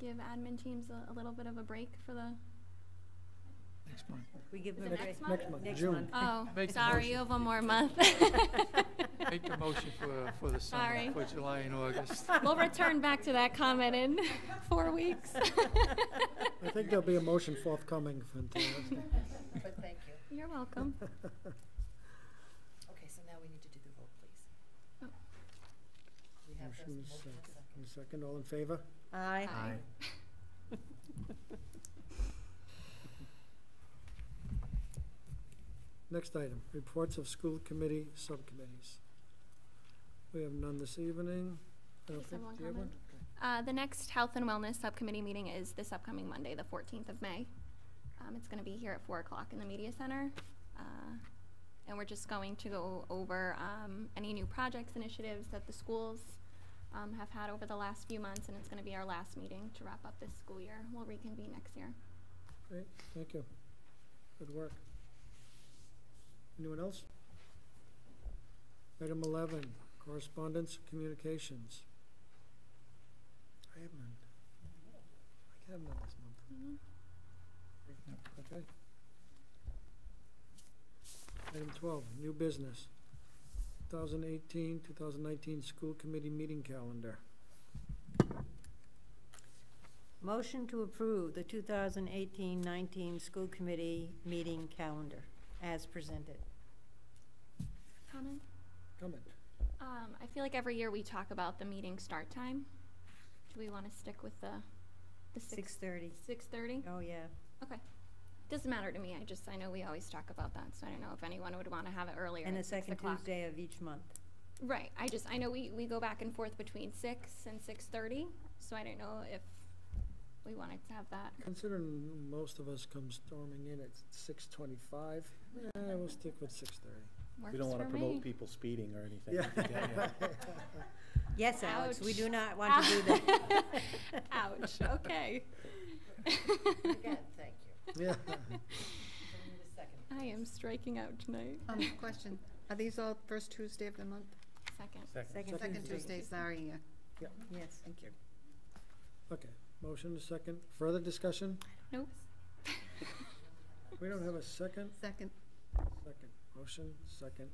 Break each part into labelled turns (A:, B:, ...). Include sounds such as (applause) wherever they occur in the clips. A: give admin teams a, a little bit of a break for the,
B: next month.
C: We give
A: Is
C: them
A: it
C: a break.
A: next month?
B: Next month,
C: Next
B: June.
C: month.
A: oh,
B: Make the
A: sorry,
B: motion.
A: you have one more month.
B: Make the motion for, for the
A: Sorry.
B: summer, for July and August.
A: We'll return back to that comment in four weeks.
D: I
A: (laughs)
D: think there'll be a motion forthcoming for until next time.
E: But thank you.
A: You're welcome.
E: Okay, so now we need to do the vote, please.
A: Oh.
E: We have this
D: Motion is
E: motion and second.
D: In a second, all in favor?
C: Aye.
A: Aye.
D: Next item, reports of school committee subcommittees. We have none this evening. I don't
A: Just
D: think-
A: have one
D: do you have
A: comment.
D: one?
A: Uh, the next Health and Wellness Subcommittee meeting is this upcoming Monday, the fourteenth of May. Um, it's gonna be here at four o'clock in the media center. Uh, and we're just going to go over, um, any new projects, initiatives that the schools, um, have had over the last few months, and it's gonna be our last meeting to wrap up this school year. We'll reconvene next year.
D: Great, thank you. Good work. Anyone else? Item eleven, correspondence, communications. I have none. I have none this month, okay? Item twelve, new business. 2018-2019 school committee meeting calendar.
C: Motion to approve the 2018-19 school committee meeting calendar as presented.
A: Comment?
D: Comment?
A: Um, I feel like every year we talk about the meeting start time. Do we wanna stick with the, the six,
C: 6:30.
A: six thirty?
C: Oh, yeah.
A: Doesn't matter to me, I just, I know we always talk about that, so I don't know if anyone would wanna have it earlier.
C: And the
A: at six
C: second
A: o'clock.
C: Tuesday of each month.
A: Right, I just, I know we, we go back and forth between six and six thirty, so I don't know if we wanted to have that.
D: Considering most of us come storming in at six twenty-five, eh, we'll stick with six thirty.
F: We don't
A: Works
F: want to
A: for
F: promote
A: me.
F: people speeding or anything.
D: Yeah.
C: Yes, Alex, we do
A: Ouch.
C: not want to do that.
A: Ouch,
F: (laughs)
A: okay.
E: Again, thank you.
D: Yeah.
E: So we need a second.
A: I am striking out tonight.
G: Um, question, are these all first Tuesday of the month?
A: (laughs) Second.
C: Second
G: Second Tuesday, sorry, yeah.
C: Yes.
G: Thank you.
D: Okay, motion is second. Further discussion?
A: Nope. (laughs)
D: We don't have a second?
G: Second,
D: Second. Motion, second.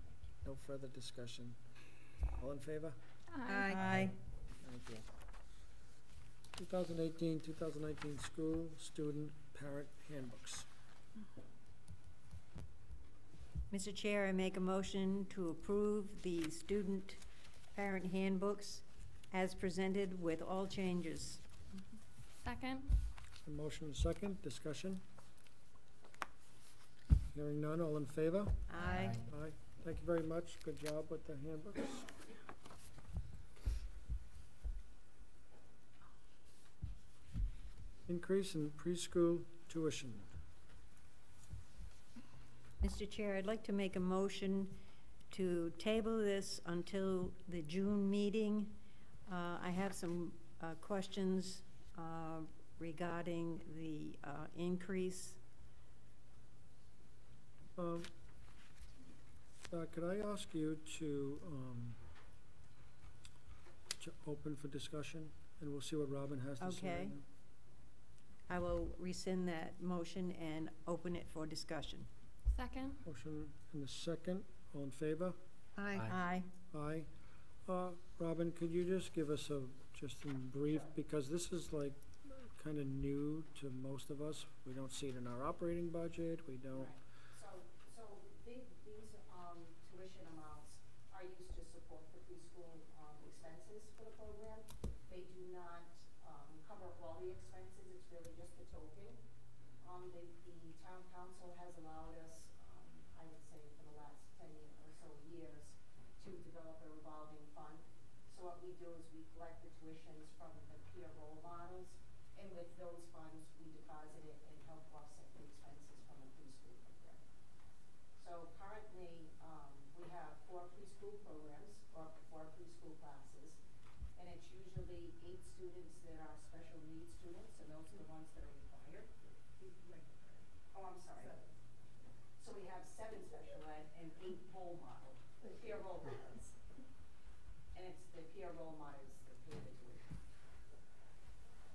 D: No further discussion. All in favor?
A: Aye.
C: Aye.
D: Thank you. 2018, 2019 school student parent handbooks.
C: Mr. Chair, I make a motion to approve the student parent handbooks as presented with all changes.
A: Second.
D: A motion is second. Discussion? Hearing none. All in favor?
C: Aye.
D: Aye. Thank you very much. Good job with the handbooks. Increase in preschool tuition.
C: Mr. Chair, I'd like to make a motion to table this until the June meeting. Uh, I have some uh, questions uh, regarding the uh, increase.
D: Um, uh, could I ask you to, um, to open for discussion, and we'll see what Robin has to say. right
C: Okay.
D: now.
C: I will rescind that motion and open it for discussion.
A: Second.
D: Motion in a second. All in favor?
G: aye.
F: Aye.
C: Aye.
D: Aye. Uh, Robin, could you just give us a, just in brief, because this is like kind of new to most of us. We don't see it in our operating budget, we don't.
H: So, so the- these, um, tuition amounts are used to support the preschool, um, expenses for the program. They do not, um, cover all the expenses, it's really just the token. Um, the, the town council has allowed us, um, I would say for the last ten or so years, to develop a revolving fund. So what we do is we collect the tuitions from the peer role models, and with those funds, we deposit it and help offset the expenses from the preschool program. So currently, um, we have four preschool programs, or four preschool classes, and it's usually eight students that are special needs students, and those are the ones that are required. Oh, I'm sorry. So we have seven special ed and eight role model, peer role models. And it's the peer role models